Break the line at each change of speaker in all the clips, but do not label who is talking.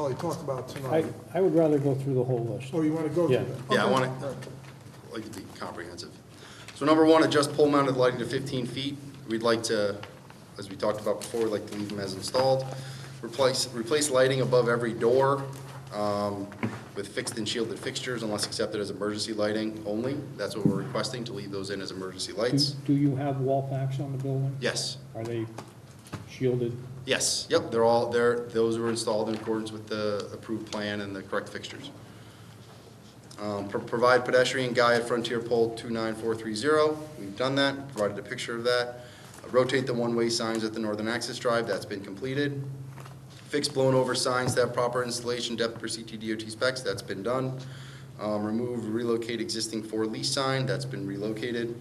Holly talked about
I,
tonight.
I would rather go through the whole list.
Oh, you want to go through
Yeah.
that?
Yeah, I
Okay.
want it, I'd like it to be comprehensive. So number one, adjust pole mounted lighting to fifteen feet. We'd like to, as we talked about before, we'd like to leave them as installed. Replace, replace lighting above every door, um, with fixed and shielded fixtures unless accepted as emergency lighting only. That's what we're requesting, to leave those in as emergency
Do
lights.
do you have wall packs on the building?
Yes,
Are they shielded?
yes, yep, they're all, they're, those were installed in accordance with the approved plan and the correct fixtures. Um, pro- Provide pedestrian guy at Frontier Pole 29430. We've done that, provided a picture of that. Rotate the one-way signs at the northern access drive, that's been completed. Fix blown-over signs that have proper installation depth per CTDOT specs, that's been done. Um, Remove, relocate existing for lease sign, that's been relocated.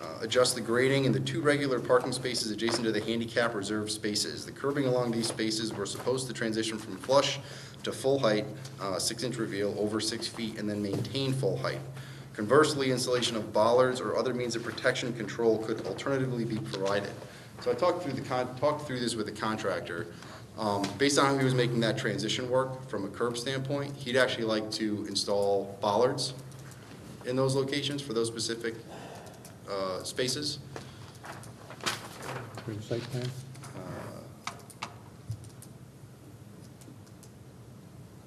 Uh, Adjust the grading in the two regular parking spaces adjacent to the handicap reserved spaces. The curbing along these spaces were supposed to transition from flush to full height, uh, six-inch reveal over six feet, and then maintain full height. Conversely, installation of bollards or other means of protection control could alternatively be provided. So I talked through the, con- talked through this with the contractor. Um, Based on how he was making that transition work from a curb standpoint, he'd actually like to install bollards in those locations for those specific uh, spaces.
For the site plan?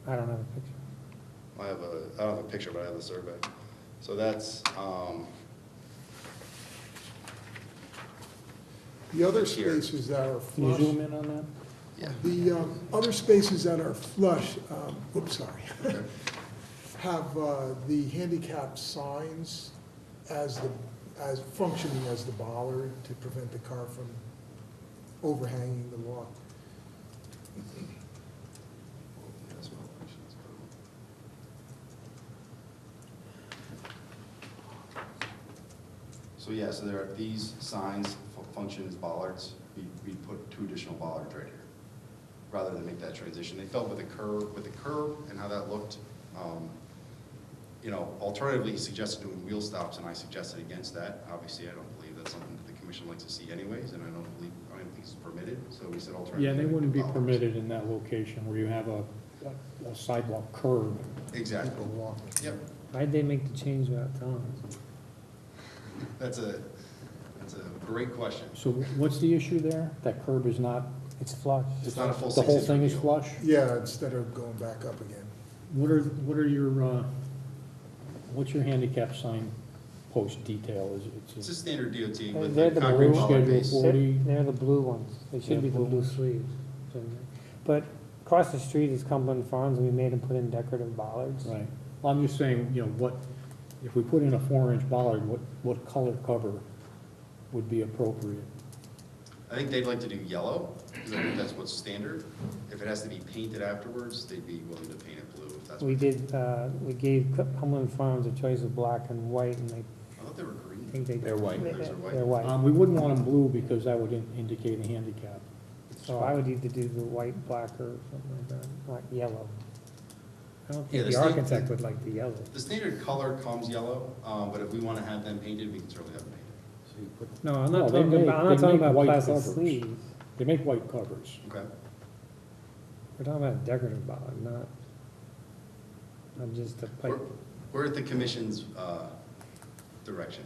I don't have a picture.
I have a, I don't have a picture, but I have the survey. So that's, um,
The other
Here.
spaces that are
Can you
flush,
zoom in on that?
yeah,
the um, other spaces that are flush, um, oops, sorry, have uh, the handicap signs as the, as functioning as the bollard to prevent the car from overhanging the walk.
So yeah, so there are these signs fu- function as bollards. We, we put two additional bollards right here, rather than make that transition. They felt with the curve, with the curve and how that looked, um, you know, alternatively, he suggested doing wheel stops, and I suggested against that. Obviously, I don't believe that's something that the commission likes to see anyways, and I don't believe, I don't think it's permitted, so we said alternatively.
Yeah, they wouldn't be
bollards.
permitted in that location where you have a a sidewalk curb.
Exactly,
People walk.
yep.
Why'd they make the change without telling us?
That's a, that's a great question.
So what's the issue there? That curb is not,
It's flush.
It's not a full
the whole
six-inch
thing is
reveal.
flush?
Yeah, instead of going back up again.
What are, what are your, uh, what's your handicap sign post detail? Is it-
It's
It's
a
a
standard DOT
They're
with
they're
the
the
concrete
blue.
bollard
Schedule
base.
for- Forty.
They're they're the blue ones. They
Yeah,
should be the
blue
blue
ones.
sleeves. But across the street is Cumberland Farms and we made them put in decorative bollards.
Right. Well, I'm just saying, you know, what, if we put in a four-inch bollard, what, what color cover would be appropriate?
I think they'd like to do yellow, because I think that's what's standard. If it has to be painted afterwards, they'd be willing to paint it blue if that's.
We did, uh, we gave Cu- Cumberland Farms a choice of black and white and they
I thought they were green.
think they.
They're white.
they-
Those are white.
They're white.
Um, we wouldn't want them blue because that would in- indicate a handicap.
So I would either do the white, black or something like that, not yellow. I don't
Yeah,
think the
there's no-
architect would like the yellow.
The standard color comes yellow, um, but if we want to have them painted, we can certainly have them painted.
No, I'm
No,
not
they
talking
make-
about, I'm
they
not talking
make
about
white
plastic
covers.
sleeves.
They make white covers.
Okay.
We're talking about a decorative bollard, not, not just a pipe.
We're- We're at the commission's uh, direction.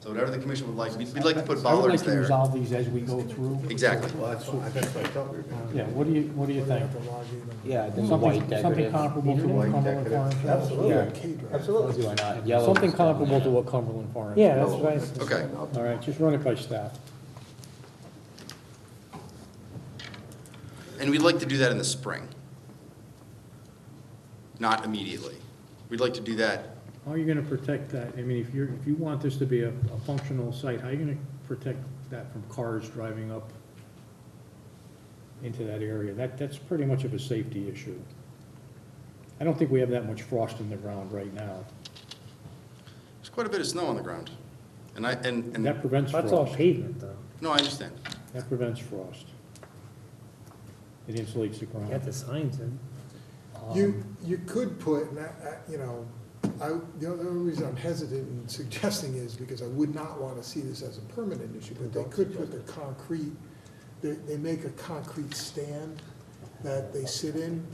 So whatever the commission would like, we'd we'd like to put
I would like
bollards
to
there.
Resolve these as we go through.
Exactly.
Well, that's what, that's what I thought we were gonna do.
Yeah, what do you, what do you
We're gonna
think?
have to log in and-
Yeah, I think white
Something, something
decorative.
comparable to what
White
Cumberland Farms
decorative.
has?
Absolutely.
K drive.
Absolutely, why not? Yellow
Something
is definitely-
comparable to what Cumberland Farms.
Yeah,
has.
that's what I
Oh,
said.
Okay.
All right, just run it by staff.
And we'd like to do that in the spring. Not immediately. We'd like to do that
How are you gonna protect that? I mean, if you're, if you want this to be a, a functional site, how are you gonna protect that from cars driving up into that area? That, that's pretty much of a safety issue. I don't think we have that much frost in the ground right now.
There's quite a bit of snow on the ground. And I, and,
And that
and,
prevents
That's all
frost.
pavement though.
no, I understand.
That prevents frost. It insulates the
You got
ground.
the signs in.
You, you could put, and I, I, you know, I, the other reason I'm hesitant in suggesting is because I would not want to see this as a permanent issue, but they could put the concrete, they, they make a concrete stand that they sit in,